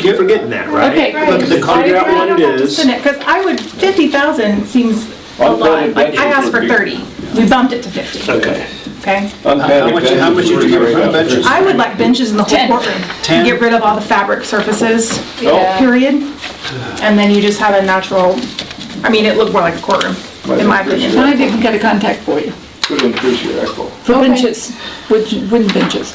keep forgetting that, right? Okay. But to figure out what it is. Because I would, 50,000 seems a I'm lot, glad but I that asked for you- 30. We bumped it to 50, Okay. okay? How much, how much did you give for the benches? I would like benches in the whole Ten. courtroom. Ten. Oh. Get rid of all the fabric surfaces, Yeah. period. And then you just have a natural, I mean, it looked more like a courtroom, in my opinion. I didn't get a contact for you, Could increase your echo. for benches, wooden wooden benches,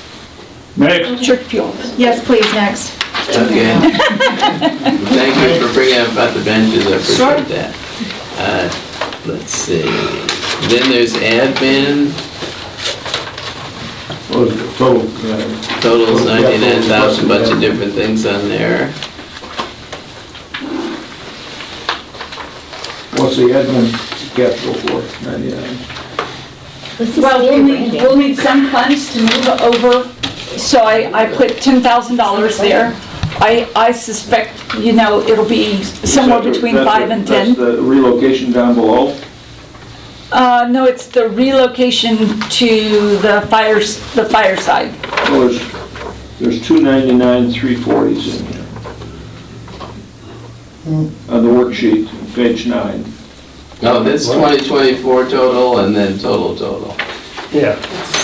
Next. church pews. Yes, please, next. Okay. Thank you for bringing up about the benches, I appreciate that. Uh, Let's see, then there's admin, Well, it's total, uh, totals ninety-nine thousand, bunch of different things on there. What's the admin capital for, ninety-nine? Well, we'll need, we'll need some funds to move over, so I, I put ten thousand dollars there. I, I suspect, you know, it'll be somewhere That's the- between that's the- five and ten. That's the relocation down below? Uh, no, it's the relocation to the fires, the fireside. Well, there's, there's two ninety-nine, three forties in here. On the worksheet, page nine. Oh, that's twenty twenty-four total, and then total, total, Yeah.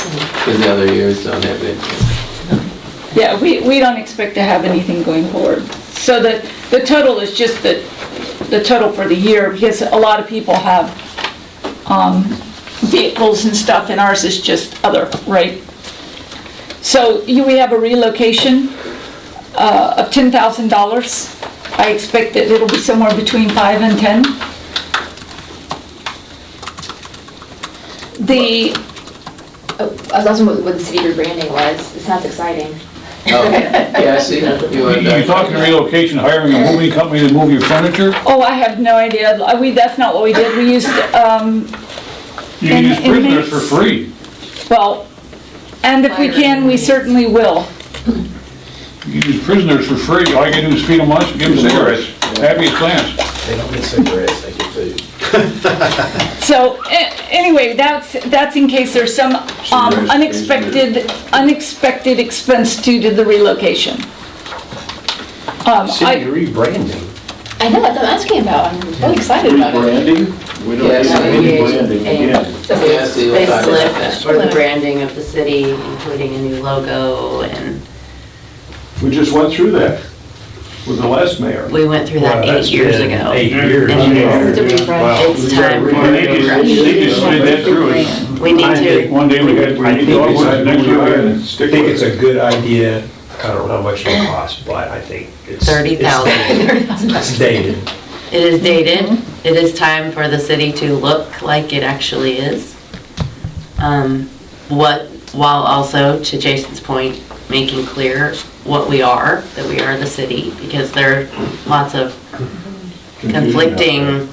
because the other years don't have it. Yeah, we, we don't expect to have anything going forward. So the, the total is just the, the total for the year, because a lot of people have, um, vehicles and stuff, and ours is just other, right? So you, we have a relocation, uh, of ten thousand dollars. I expect that it'll be somewhere between five and ten. The, Oh, I was asking what, what the city rebranding was. It sounds exciting. Oh, yeah, I see, you are. You're talking relocation, hiring a moving company to move your furniture? Oh, I have no idea. Uh, We, that's not what we did. We used, um, You can In- use prisoners for inmates. free. well, and if we can, we certainly will. You can use prisoners for free. All you gotta do is feed them lunch and give them cigarettes. Happy as clams. They don't get cigarettes, they get food. So, a- anyway, that's, that's in case there's some um, raised- unexpected, unexpected expense due to the relocation. Um, City I, rebranding. I know, that's what I'm asking about. I'm really excited about it. Rebranding? We don't Yes, have any Yeah, branding again. and so Yeah, I see what you're talking about Facelift for the branding of the city, including a new logo, and We just went through that with the last mayor. we went through that eight years ago. Eight years. And Yeah. it's to refresh, it's time for They a just, they just slid that through us. refresh. We need to, One day we got, I we think need to it's- organize next year. I think it's a good idea. I don't know how much it'll cost, but I think it's. thirty thousand. It's dated. It is dated, it is time for the city to look like it actually is. Um, What, while also, to Jason's point, making clear what we are, that we are the city, because there are lots of conflicting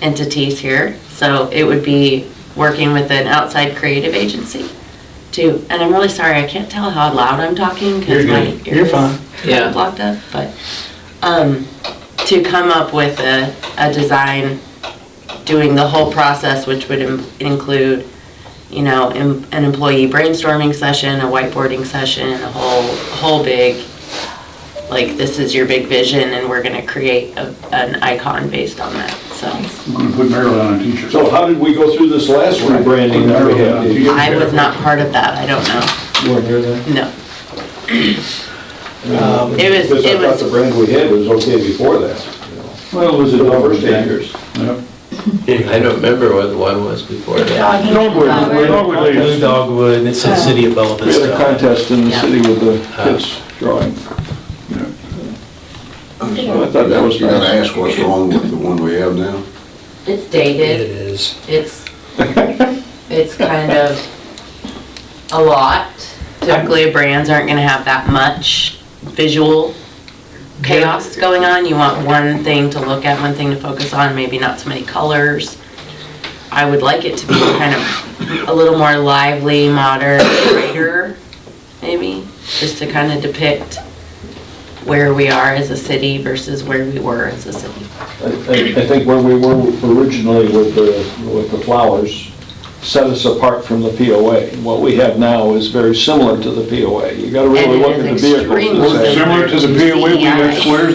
entities here. So it would be working with an outside creative agency to, and I'm really sorry, I can't tell how loud I'm talking because my You're good. You're ears fine. Yeah. are blocked up, but, um, to come up with a, a design, doing the whole process, which would im- include, you know, em- an employee brainstorming session, a whiteboarding session, a whole, whole big, like, this is your big vision and we're gonna create a, an icon based on that, so. I'm gonna put Maryland on a t-shirt. So how did we go through this last rebranding that we had? Did you- I was not part of that, I don't know, You weren't here then? no. Um, It was- Because I it thought was- the brand we had was okay before that. Well, it was a The double first eight standard. years. Yep. I don't remember what the one was before Uh, that. Dogwood, dogwood Blue ladies. Dogwood, and it Oh. says city of all We this had a stuff. contest in the Yeah. city with the kids drawing. So I thought that was You gotta nice. ask what's wrong with the one we have now? It's It dated, is. it's, it's kind of a lot. Typically, brands aren't gonna have that much visual chaos going on. You want one thing to look at, one thing to focus on, maybe not so many colors. I would like it to be kind of a little more lively, modern, brighter, maybe, just to kind of depict where we are as a city versus where we were as a city. I I- I think where we were originally with the, with the flowers, set us apart from the POA. What we have now is very similar to the POA. You gotta And really it look is at the vehicles. extremely to say- E Similar to the POA, we got squares